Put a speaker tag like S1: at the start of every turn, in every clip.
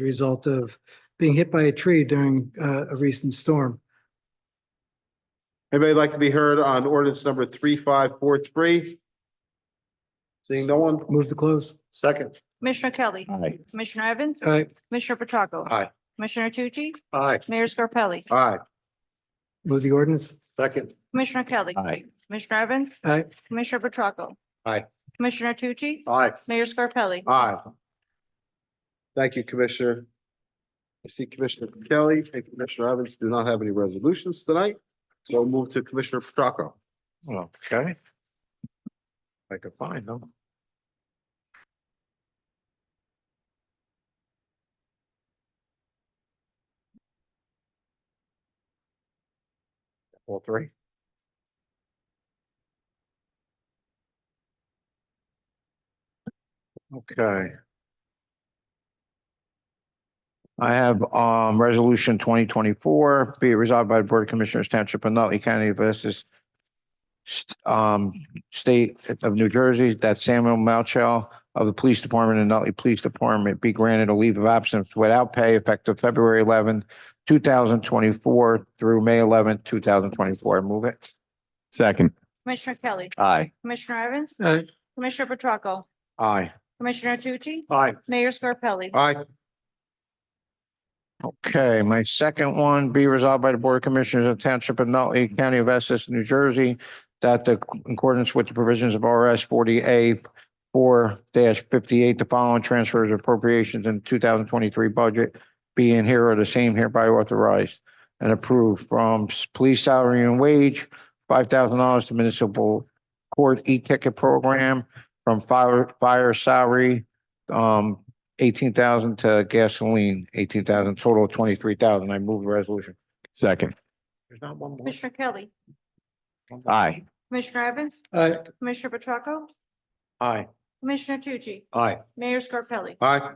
S1: the result of being hit by a tree during uh, a recent storm.
S2: Anybody like to be heard on ordinance number three, five, four, three? Seeing no one,
S1: Move to close.
S2: second.
S3: Commissioner Kelly.
S2: Aye.
S3: Commissioner Evans.
S1: All right,
S3: Commissioner Petracca.
S2: Aye.
S3: Commissioner Tucci.
S2: Aye.
S3: Mayor Scarpelli.
S2: Aye,
S1: move the ordinance.
S2: second.
S3: Commissioner Kelly.
S2: Aye.
S3: Commissioner Evans.
S1: All right,
S3: Commissioner Petracca.
S2: Aye.
S3: Commissioner Tucci.
S2: Aye.
S3: Mayor Scarpelli.
S2: Aye. Thank you, Commissioner. I see Commissioner Kelly and Commissioner Evans do not have any resolutions tonight, so we'll move to Commissioner Petracca. Okay. I can find them. All three? Okay.
S4: I have um resolution twenty twenty-four, be it resolved by the Board of Commissioners Township of Nutley County of Essex. st- Um, State of New Jersey, that Samuel Malchow of the Police Department and Nutley Police Department be granted a leave of absence without pay effective February eleventh, two thousand twenty-four through May eleventh, two thousand twenty-four. Move it.
S5: Second.
S3: Commissioner Kelly.
S5: Aye.
S3: Commissioner Evans.
S1: all right,
S3: Commissioner Petracca.
S4: Aye.
S3: Commissioner Tucci.
S2: Aye.
S3: Mayor Scarpelli.
S2: Aye.
S4: Okay, my second one, be resolved by the Board of Commissioners of Township of Nutley County of Essex, New Jersey, that the in accordance with the provisions of RS forty A four fifty-eight, the following transfers appropriations in two thousand twenty-three budget being here are the same hereby authorized and approved from s- police salary and wage, five thousand dollars to municipal court e-ticket program, from fire, fire salary, um, eighteen thousand to gasoline, eighteen thousand, total of twenty-three thousand. I move the resolution.
S5: Second.
S4: There's not one more.
S3: Commissioner Kelly.
S5: Aye.
S3: Commissioner Evans.
S1: all right,
S3: Commissioner Petracca.
S4: Aye.
S3: Commissioner Tucci.
S4: Aye.
S3: Mayor Scarpelli.
S2: Aye.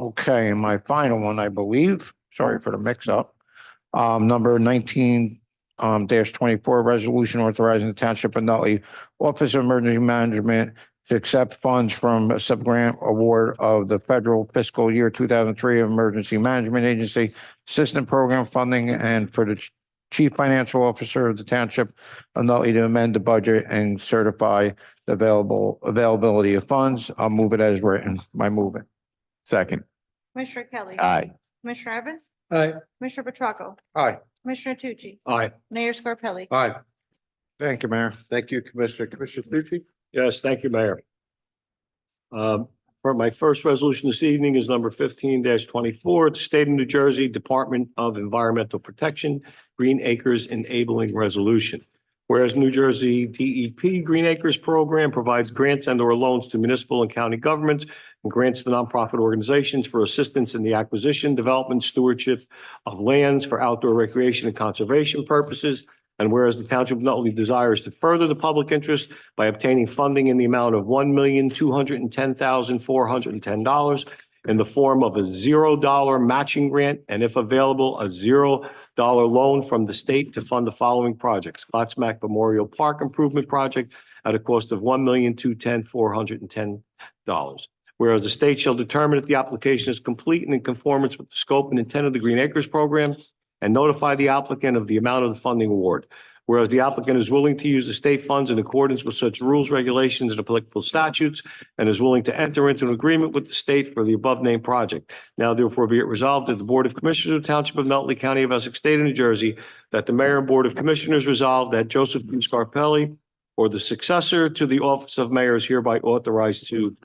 S4: Okay, and my final one, I believe, sorry for the mix-up. Um, number nineteen, um, dash twenty-four, resolution authorizing the Township of Nutley Office of Emergency Management to accept funds from a sub-grant award of the federal fiscal year two thousand three Emergency Management Agency System Program Funding and for the ch- Chief Financial Officer of the Township of Nutley to amend the budget and certify the available, availability of funds. I'll move it as written, my movement.
S5: Second.
S3: Commissioner Kelly.
S5: Aye.
S3: Commissioner Evans.
S1: all right.
S3: Commissioner Petracca.
S2: Aye.
S3: Commissioner Tucci.
S2: Aye.
S3: Mayor Scarpelli.
S2: Aye.
S4: Thank you, Mayor.
S2: Thank you, Commissioner. Commissioner Tucci?
S6: Yes, thank you, Mayor. Um, For my first resolution this evening is number fifteen twenty-four, It's State of New Jersey Department of Environmental Protection, Green Acres Enabling Resolution. Whereas New Jersey DEP Green Acres Program provides grants and or loans to municipal and county governments and grants to nonprofit organizations for assistance in the acquisition, development, stewardship of lands for outdoor recreation and conservation purposes. And whereas the Township of Nutley desires to further the public interest by obtaining funding in the amount of one million, two hundred and ten thousand, four hundred and ten dollars in the form of a zero dollar matching grant, and if available, a zero dollar loan from the state to fund the following projects. Glatsmack Memorial Park Improvement Project at a cost of one million, two ten, four hundred and ten dollars. Whereas the state shall determine if the application is complete and in conformance with the scope and intent of the Green Acres Program and notify the applicant of the amount of the funding award. Whereas the applicant is willing to use the state funds in accordance with such rules, regulations, and applicable statutes, and is willing to enter into an agreement with the state for the above-named project. Now therefore be it resolved that the Board of Commissioners of the Township of Nutley County of Essex State of New Jersey, that the Mayor and Board of Commissioners resolve that Joseph P. Scarpelli, or the successor to the office of mayor is hereby authorized to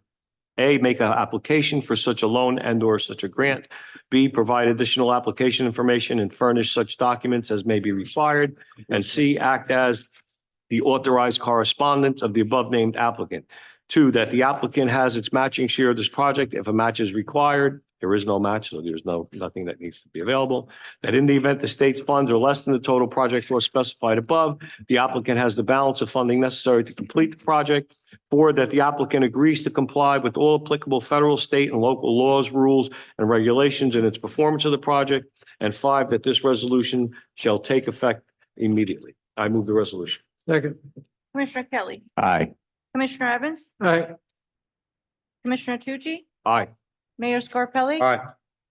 S6: A, make an application for such a loan and/or such a grant, B, provide additional application information and furnish such documents as may be required, and C, act as the authorized correspondent of the above named applicant. Two, that the applicant has its matching share of this project if a match is required. There is no match, so there's no, nothing that needs to be available. That in the event the state's funds are less than the total project was specified above, the applicant has the balance of funding necessary to complete the project. Four, that the applicant agrees to comply with all applicable federal, state, and local laws, rules, and regulations in its performance of the project. And five, that this resolution shall take effect immediately. I move the resolution.
S1: Second,
S3: Commissioner Kelly.
S5: Aye.
S3: Commissioner Evans.
S1: all right,
S3: Commissioner Tucci.
S6: Aye.
S7: Mayor Scarpelli?
S3: Aye.